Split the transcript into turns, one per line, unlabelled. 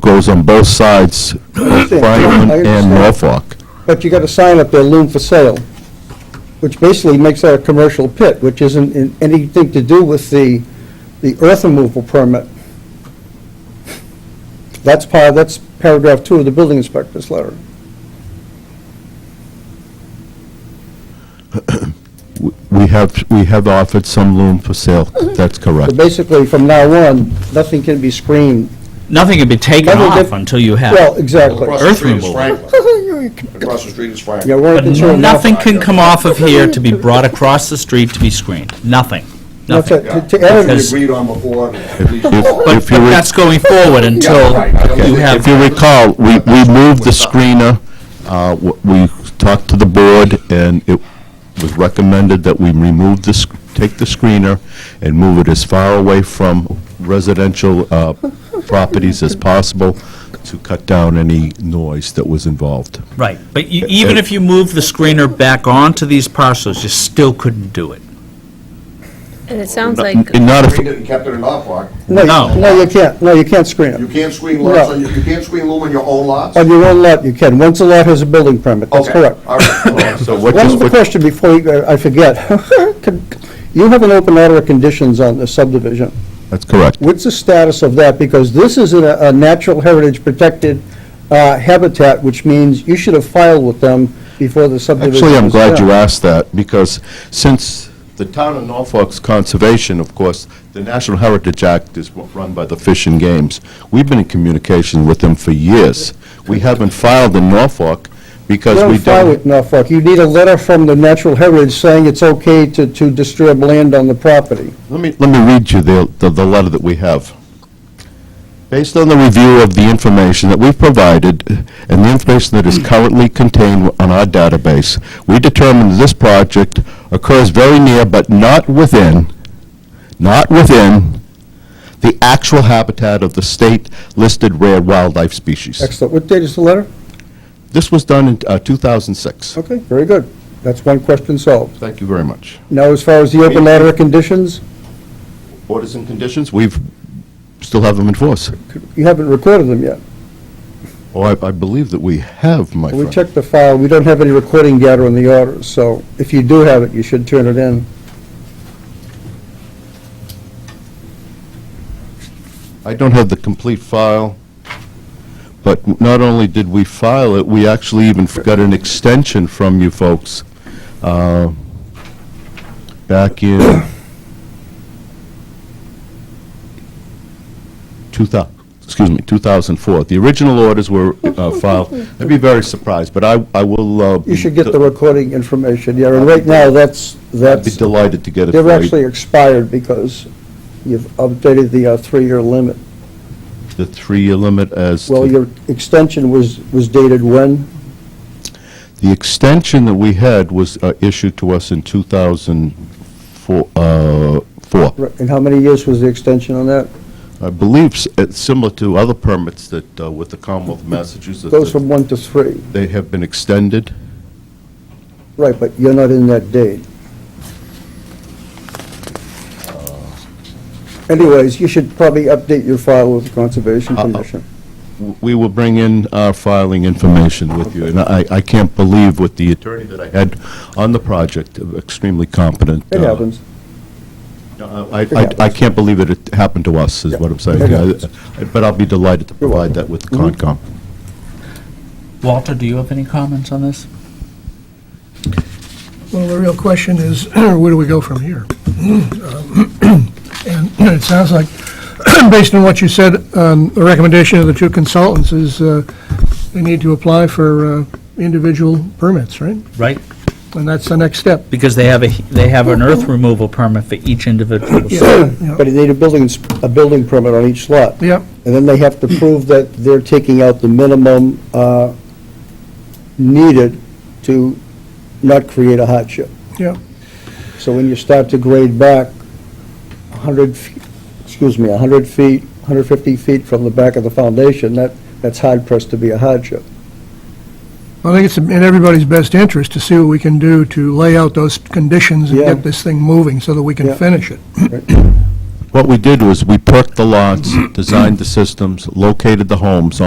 goes on both sides, of
understand.
Franklin
I
and
understand.
Norfolk.
But you got a sign up there, loom for sale, which basically makes that a commercial pit, which isn't in anything to do with the, the earth removal permit. That's part, that's paragraph two of the building inspector's letter.
W- We have, we have offered some loom for sale,
Mm-hmm.
that's correct.
So basically, from now on, nothing can be screened.
Nothing can be taken
Nothing
off
can-
until you have.
Well, exactly.
Across the
Earth
street is
removal.
Franklin. Across the street is Franklin.
Yeah, we're
But
concerned about-
nothing can come off of here to be brought across the street to be screened. Nothing,
That's
nothing.
it.
Yeah.
To- to
That's what
Because-
we agreed on before.
If-
But
if you
but
re-
that's going forward until
right. I don't
you
think-
have.
If you recall, we, we moved the screener, uh, w- we talked to the board, and it was recommended that we remove this, take the screener and move it as far away from residential uh, properties as possible to cut down any noise that was involved.
Right, but you- even if you move the screener back onto these parcels, you still couldn't do it.
And it sounds like,
And not if,
Agreed that You kept it in Norfolk.
No,
No.
you- no, you can't, no, you can't screen
You
it.
can't screen lots,
No.
on- you can't screen loom on your own lots?
On your own lot, you can, once the lot has a building permit, that's
Okay,
correct.
all right, all right.
So what-
One
Just
other question before you go- I forget. Could- You have an open order of conditions on the subdivision.
that's correct.
What's the status of that? Because this is in a, a natural heritage protected uh, habitat, which means you should have filed with them before the subdivision
Actually, I'm
was
glad you
done.
asked that, because since the town of Norfolk's conservation, of course, the National Heritage Act is wa- run by the Fish and Games, we've been in communication with them for years. We haven't filed in Norfolk
You
because we
don't file with
don't...
Norfolk. You need a letter from the natural heritage saying it's okay to, to disturb land on the property.
Let me, let me read you the, the- the letter that we have. Based on the review of the information that we've provided and the information that is currently contained on our database, we determined this project occurs very near but not within, not within, the actual habitat of the state-listed rare wildlife species.
Excellent. What date is the letter?
This was done in uh, 2006.
Okay, very good. That's one question solved.
Thank you very much.
Now, as far as the open order of conditions,
Orders and conditions, we've, still have them in force.
you haven't recorded them yet.
Oh, I, I believe that we have, my friend.
We checked the file, we don't have any recording data on the orders, so if you do have it, you should turn it in.
I don't have the complete file, but not only did we file it, we actually even got an extension from you folks uh, back in 2000, excuse me, 2004. The original orders were uh, filed. I'd be very surprised, but I I will... uh,
You should get the
be
recording information, yeah, and right now, that's, that's,
delighted to get it for
they're
you.
actually expired because you've updated the uh, three-year limit.
The three-year limit as... to-
Well, your extension was, was dated when?
The extension that we had was uh, issued to us in 2004. uh, four.
And how many years was the extension on that?
I believe s- it's similar to other permits that uh, with the Commonwealth of Massachusetts,
Goes
that
from one to three,
they have been extended.
right, but you're not in that date. Anyways, you should probably update your file with the Conservation
Uh, uh,
Commission.
W- We will bring in our filing information with you, and I I can't believe with the attorney that I had on the project, uh, extremely competent.
It
uh,
happens.
uh, I- I I can't believe that it happened to us, is what I'm saying.
It happens.
Uh, But I'll be delighted to
You're
provide that with the
Mhm.
Concom.
Walter, do you have any comments on this?
Well, the real question is, where do we go from here? Um, And it sounds like, based on what you said, um, the recommendation of the two consultants is uh, they need to apply for uh, individual permits, right?
Right,
And that's the next step.
because they have a, they have an earth removal permit for each individual site.
But you need a building, ins- a building permit on each lot.
Yep,
And then they have to prove that they're taking out the minimum uh, needed to not create a hardship.
yep.
So when you start to grade back 100, fe- excuse me, 100 feet, 150 feet from the back of the foundation, that, that's hard pressed to be a hardship.
I think it's in everybody's best interest to see what we can do to lay out those conditions and
Yeah.
get this thing moving so that we
Yeah.
can finish it.
What we did was, we perked the lots, designed the systems, located the homes on